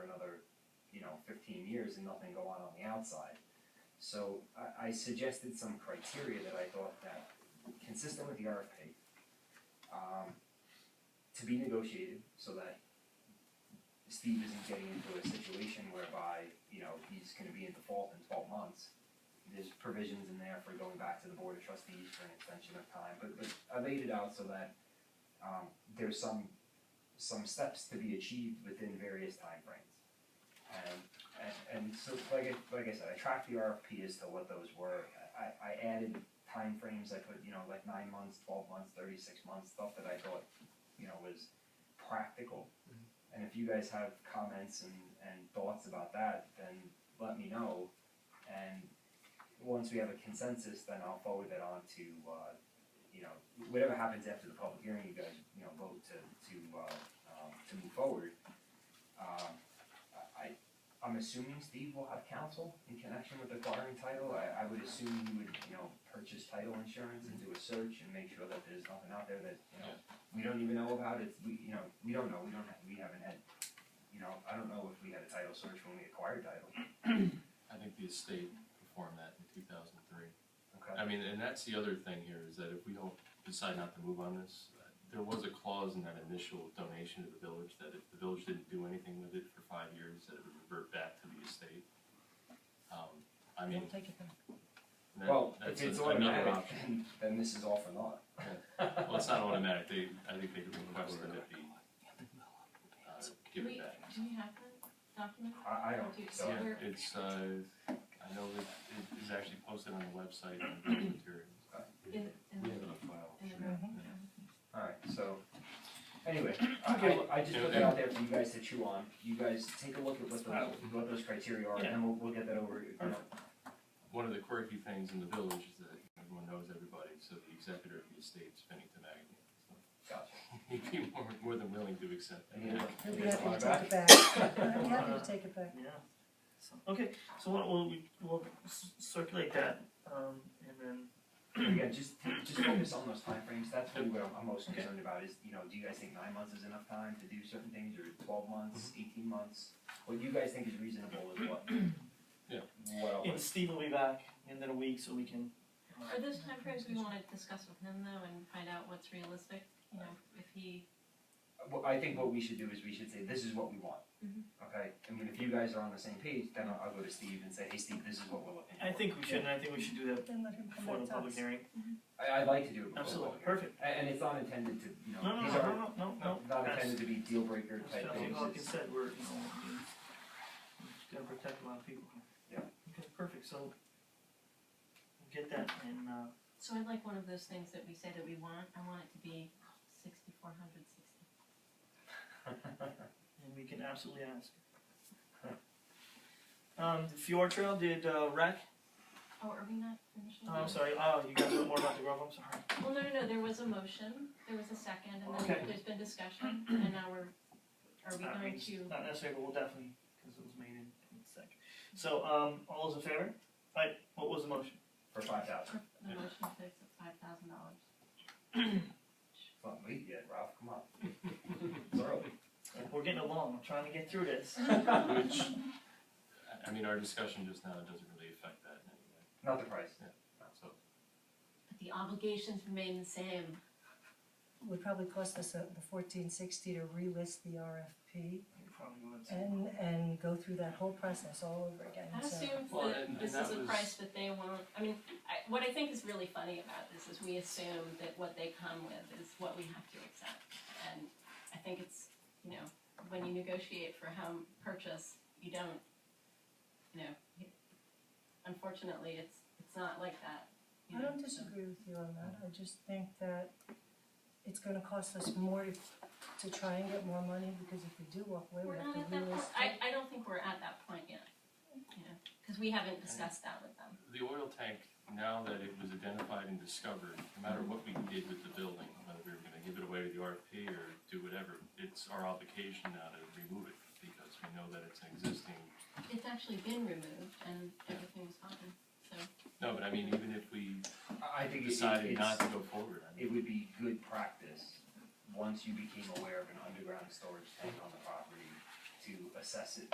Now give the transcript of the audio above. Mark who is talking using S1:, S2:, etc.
S1: fifteen years and nothing go on on the outside. So I, I suggested some criteria that I thought that consistent with the RFP, um, to be negotiated so that Steve isn't getting into a situation whereby, you know, he's gonna be in default in twelve months. There's provisions in there for going back to the board of trustees for an extension of time, but but I laid it out so that um there's some some steps to be achieved within various timeframes. And and and so like I like I said, I tracked the RFP as to what those were. I I added timeframes, I put, you know, like nine months, twelve months, thirty-six months, stuff that I thought, you know, was practical. And if you guys have comments and, and thoughts about that, then let me know. And once we have a consensus, then I'll forward that on to, uh, you know, whatever happens after the public hearing, you guys, you know, vote to, to, uh, um, to move forward. Um, I, I'm assuming Steve will have counsel in connection with acquiring title. I, I would assume he would, you know, purchase title insurance and do a search and make sure that there's nothing out there that, you know, we don't even know about it, we, you know, we don't know, we don't, ha- we haven't had, you know, I don't know if we had a title search when we acquired title.
S2: I think the estate performed that in two thousand three.
S1: Okay.
S2: I mean, and that's the other thing here, is that if we don't decide not to move on this, uh, there was a clause in that initial donation to the village, that if the village didn't do anything with it for five years, that it would revert back to the estate. Um, I mean,
S3: take it back.
S2: that-
S1: Well,
S2: that's
S1: if it's
S2: a-
S1: automatic,
S2: another option.
S1: then, then this is all for naught.
S2: Well, it's not automatic, they, I think they requested that the, uh, give it
S4: Wait,
S2: back.
S4: do we have that document?
S1: I, I don't think so.
S2: Yeah, it's, uh, I know that it is actually posted on the website and the materials.
S4: In, in,
S2: We have it on file.
S4: in the
S1: Alright, so, anyway, I, I, I just put that out there for you guys to chew on. You guys take a look at what the, what those criteria are, and then we'll, we'll get that over, you know,
S2: One of the quirky things in the village is that everyone knows everybody, so the executor of the estate is Bennington Agnew. So
S1: gotcha.
S2: He'd be more, more than willing to accept that.
S1: Yeah.
S3: I'd be
S1: Yeah. Yeah.
S3: happy to take it back. I'm happy to take it back.
S5: Uh, Yeah. So, okay, so what we'll we will circulate that, um, and then
S1: Yeah, just, just focus on those timeframes, that's really what I'm, I'm most concerned about, is, you know, do you guys think nine months is enough time to do certain things, or twelve months, eighteen months? What you guys think is reasonable is what?
S2: Yeah.
S1: What I'll,
S5: and Steve will be back in a week, so we can. uh,
S4: Are those timeframes we wanna discuss with him though and find out what's realistic, you know, if he,
S1: well, I think what we should do is we should say, this is what we want.
S4: Mhm.
S1: Okay, I mean, if you guys are on the same page, then I'll, I'll go to Steve and say, hey, Steve, this is what we're looking for.
S5: I think we should. and I think we should do that
S3: Then let him come
S5: before the
S3: back to
S5: public
S3: us.
S5: hearing.
S1: I, would like to do it before.
S5: Absolutely,
S1: public hearing.
S5: perfect.
S1: A- And, it's not intended to, you know,
S5: No, no,
S1: these
S5: no, no,
S1: are
S5: no, no, no.
S1: not
S5: That's-
S1: intended to be deal breaker
S5: that's
S1: type
S5: what
S1: things,
S5: Hawkins
S1: it's-
S5: said, we're, you know, I mean, we're gonna protect a lot of people. here. Okay, perfect. So we'll get that and. Uh,
S4: so I'd like one of those things that we say that we want, I want it to be sixty-four hundred sixty.
S5: And we can absolutely ask. Um, the Fjord Trail did, uh, rec,
S4: Oh, are we not finishing?
S5: oh, I'm sorry, oh, you guys know more about the Grove, I'm sorry.
S4: Well, no, no, no, there was a motion, there was a second, and
S5: Okay.
S4: then there's been discussion, and now we're, are we
S5: Uh,
S4: going
S5: it's
S4: to,
S5: Not necessarily, but we'll definitely, cause it was made in, in a sec. So, um, all those in favor? Right, what was the motion?
S1: for five thousand.
S4: the motion to accept five thousand dollars?
S1: It's not late yet, Ralph, come on. It's early.
S5: Like, We're getting along, I'm trying to get through this.
S2: Which, I- I mean, our discussion just now doesn't really affect that in any way,
S1: Not the price.
S2: so.
S4: But the obligations remain the same.
S3: Would probably cost us uh, the fourteen sixty to relist the RFP
S5: Probably would.
S3: and, and go through that whole process all over again,
S4: I
S3: so.
S4: assume
S2: Well,
S4: that
S2: and-
S4: this
S2: and
S4: is
S2: that
S4: a
S2: was-
S4: price that they won't, I mean, I, what I think is really funny about this is we assume that what they come with is what we have to accept. And I think it's, you know, when you negotiate for home purchase, you don't, you know, you- unfortunately, it's, it's not like that, you
S3: I
S4: know.
S3: don't disagree with you on that, I just think that it's gonna cost us more to, to try and get more money, because if we do walk away, we
S4: We're not
S3: have to
S4: at that point,
S3: relist.
S4: I, I don't think we're at that point yet, you know, because we haven't discussed that with them.
S2: The oil tank, now that it was identified and discovered, no matter what we did with the building, whether we were gonna give it away to the RFP or do whatever, it's our obligation now to remove it, because we know that it's an existing
S4: It's actually been removed and everything's fine, so.
S2: No, but I mean, even if we
S1: I I think it-
S2: decided
S1: it's-
S2: not to go forward, I mean,
S1: It would be good practice, once you became aware of an underground storage tank on the property, to assess it